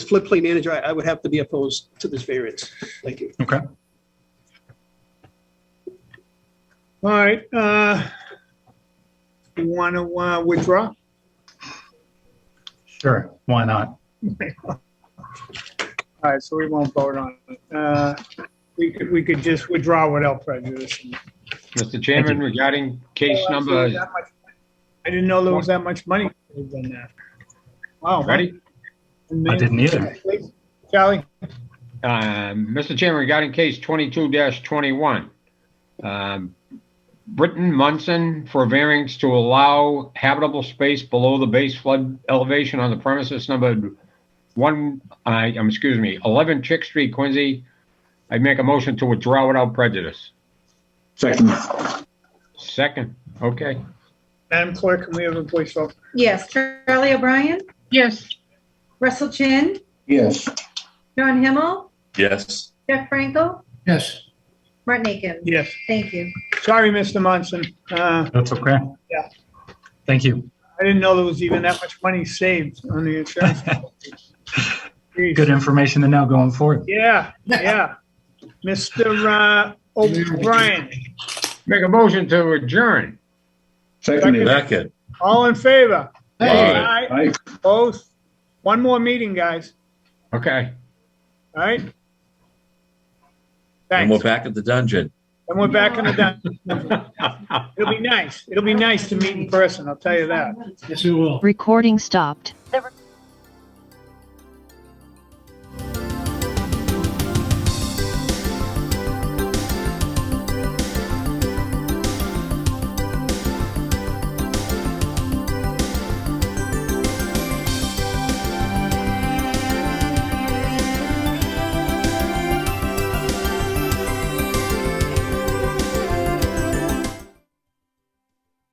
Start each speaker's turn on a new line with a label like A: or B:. A: floodplain manager, I, I would have to be opposed to this variance. Thank you.
B: Okay.
C: All right, uh, you want to, uh, withdraw?
B: Sure. Why not?
C: All right, so we won't vote on it. Uh, we could, we could just withdraw without prejudice. Oh,
D: Mr. Chairman, regarding case number,
C: I didn't know there was that much money involved in that. Wow.
D: ready?
B: I didn't either.
C: Charlie,
D: Um, Mr. Chairman, regarding case twenty-two twenty-one. um, Britton Munson for variance to allow habitable space below the base flood elevation on the premises numbered one, I, um, excuse me, eleven Chick Street, Quincy. I make a motion to withdraw without prejudice.
E: Second.
D: Second, okay.
C: Madam Clerk, can we have a voice vote?
F: Yes, Charlie O'Brien,
D: Yes.
F: Russell Chin,
E: Yes.
F: John Himmel,
G: Yes.
F: Jeff Frankel,
B: Yes.
F: Martin Aiken.
C: Yes.
F: Thank you.
C: Sorry, Mr. Munson. Uh,
B: That's okay.
C: Yeah.
B: Thank you.
C: I didn't know there was even that much money saved on the insurance. Jeez.
B: Good information to know going forward.
C: Yeah, yeah. Mr. uh, O'Brien,
D: Make a motion to adjourn.
E: Seconded.
G: Second.
C: all in favor?
G: Aye.
C: Aye, Both. One more meeting, guys,
D: Okay.
C: all right?
G: And we're
C: Thanks.
G: back at the dungeon.
C: And we're back in the, dun- it'll be nice. It'll be nice to meet in person, I'll tell you that.
H: Recording stopped.
I: The recording